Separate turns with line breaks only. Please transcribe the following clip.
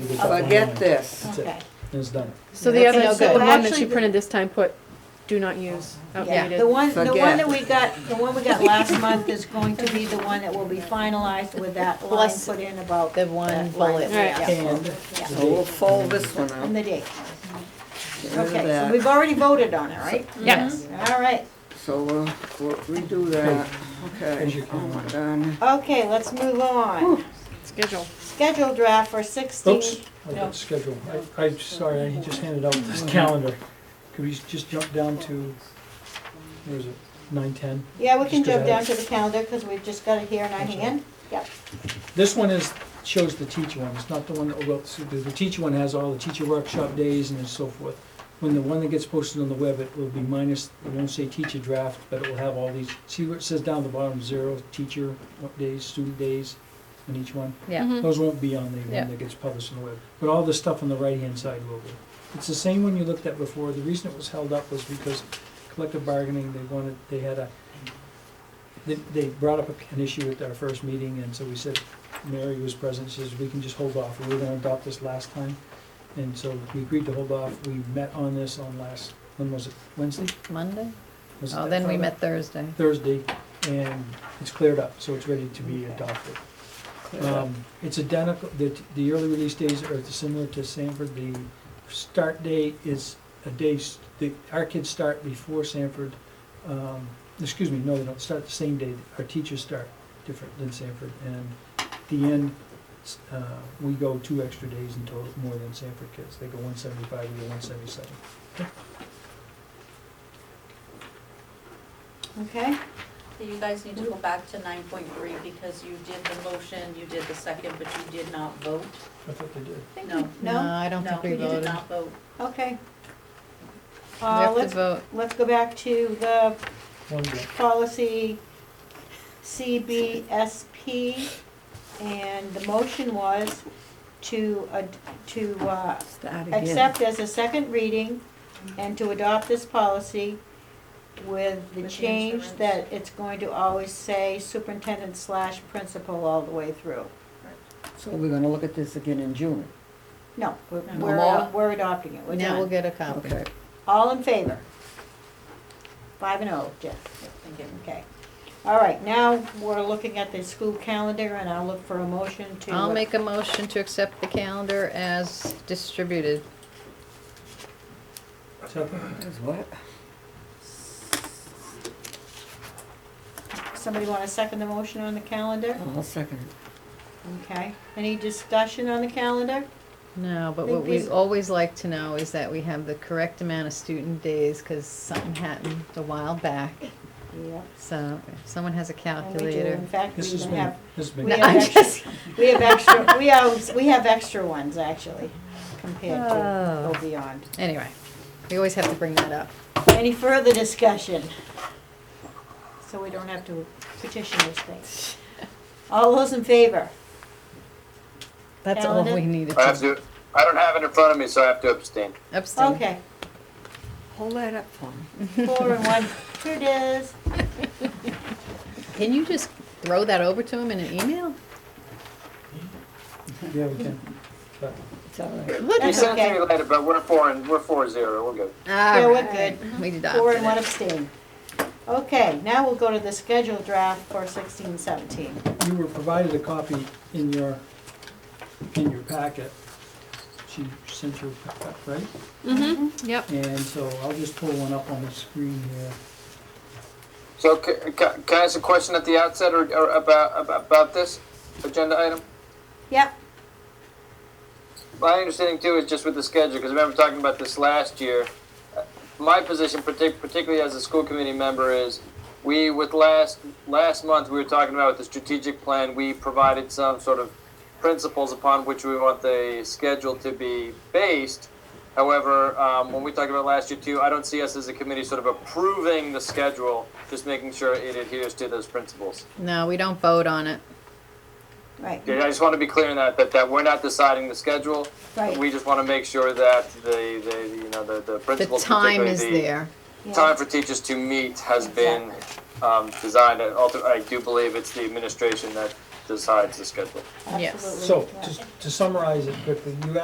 get that one
Forget
line.
this.
That's it.
Okay.
It's done.
So the
Okay,
other,
so
the one that
actually
she
the-
printed this time put, do not use,
Yeah,
outdated.
the one, the one
Forget.
that we got, the one we got last month is going to be the one that will be finalized with that line
Plus
put in about.
The one
that line that
bullet,
we
yeah.
asked for.
And Mm,
Yeah,
So we'll fold Oh, this one
And
out.
the date.
Get rid of
Okay, so
that.
we've already voted on it, right?
Yes.
All right,
So we'll we'll redo that.
Here's
Okay,
your
all
calendar.
done.
okay, let's move on.
Schedule.
Schedule draft for sixteen.
Oops, I got schedule. I, I'm sorry, I just handed out this calendar. Could we just jump down to, where is it, nine, ten?
Yeah, we can
Just 'cause
jump
I-
down to the calendar, because we've just got it here in our
That's all.
hand.
This one is, shows the teacher one, it's not the one that, well, it's- the the teacher one has all the teacher workshop days and so forth. When the one that gets posted on the web, it will be minus, it won't say teacher draft, but it will have all these, see where it says down at the bottom, zero, teacher, what days, student days, on each one?
yeah.
Mhm.
Those won't be on the one
Mm-hmm. Yeah.
that gets published on the web, but all the stuff on the right-hand side will be. It's the same one you looked at before, the reason it was held up was because collective bargaining, they wanted, they had a, they, they brought up an issue at our first meeting, and so we said, Mary was present, she says, we can just hold off, we were gonna adopt this last time. And so we agreed to hold off, we met on this on last, when was it, Wednesday?
Monday?
Was it
Oh,
that
then we
Friday?
met Thursday.
Thursday, and it's cleared up, so it's ready to be adopted. Um, It's identical, the, the early release days are similar to Sanford, the start date is a day, s- the, our kids start before Sanford. Um, Excuse me, no, they don't start the same day, our teachers start different than Sanford, and the end, s- uh, we go two extra days in total, more than Sanford kids, they go one seventy-five, we go one seventy-seven.
Okay,
So You guys need to go back to nine point three because you did the motion, you did the second, but you did not vote.
I thought they did.
No,
No,
no,
I don't
no,
think we
you did
voted.
not vote.
okay.
We
Uh,
have to
let's,
vote.
let's go back to the
One day.
policy CBSP, and the motion was to, ad- to uh,
Start
accept as a second reading and to adopt this policy with the
With the
change
insurance.
that it's going to always say superintendent slash principal all the way through.
So we're gonna look at this again in June.
No, we're,
No.
we're, we're adopting it, we're
Now we'll
done.
get a copy.
Okay.
All in favor? Five and oh, Jeff.
Thank you.
Okay. All right, now we're looking at the school calendar, and I'll look for a motion to. uh,
I'll make a motion to accept the calendar as distributed.
Second?
Is what?
Somebody want to second the motion on the calendar?
I'll second it.
Okay. Any discussion on the calendar?
No, but
Think
what we
these-
always like to know is that we have the correct amount of student days, cause something happened a while back.
Yep.
So if someone has a
And we do,
calculator.
in fact, we
This has
even
been,
have,
this has been.
we
No,
have
I'm
extra, we have extra, we have, we have extra ones, actually, compared to
Oh.
go beyond.
Anyway, we always have to bring that up.
Any further discussion? So we don't have to petition these things. All those in favor?
That's all
Calendar?
we needed
I have
to
to, I don't have it in front of me, so I have to abstain.
abstain.
Okay,
Hold that up for me.
four and one, here it is.
Can you just throw that over to him in an email?
Yeah, we can. But
It's all right.
You
That's
sent it to me
okay.
later, but we're four and, we're four zero, we're good.
Yeah,
we're good.
We adopted
Four and one
it.
abstain. Okay, now we'll go to the schedule draft for sixteen seventeen.
You were provided a copy in your, in your packet. She sent you, a packet, right?
Mm-hmm, yep.
And so I'll just pull one up on the screen here.
So ca- ca- can I ask a question at the outset or, or about, about- about this agenda item?
Yep,
My understanding too is just with the schedule, because I remember talking about this last year. Uh, My position, partic- particularly as a school committee member, is we, with last, last month, we were talking about with the strategic plan, we provided some sort of principles upon which we want the schedule to be based. However, um, when we talked about last year too, I don't see us as a committee sort of approving the schedule, just making sure it adheres to those principles.
No, we don't vote on it.
right,
Okay, I just want to be clear on that, that, that we're not deciding the schedule.
right.
We just want to make sure that the, the, you know, the, the
The
principals.
time
particularly
is
the
there.
yeah.
Time for teachers to meet has been, um, designed, I also- I do believe it's the administration that decides the schedule.
Yes.
Absolutely,
So
yeah.
to- to summarize it quickly, you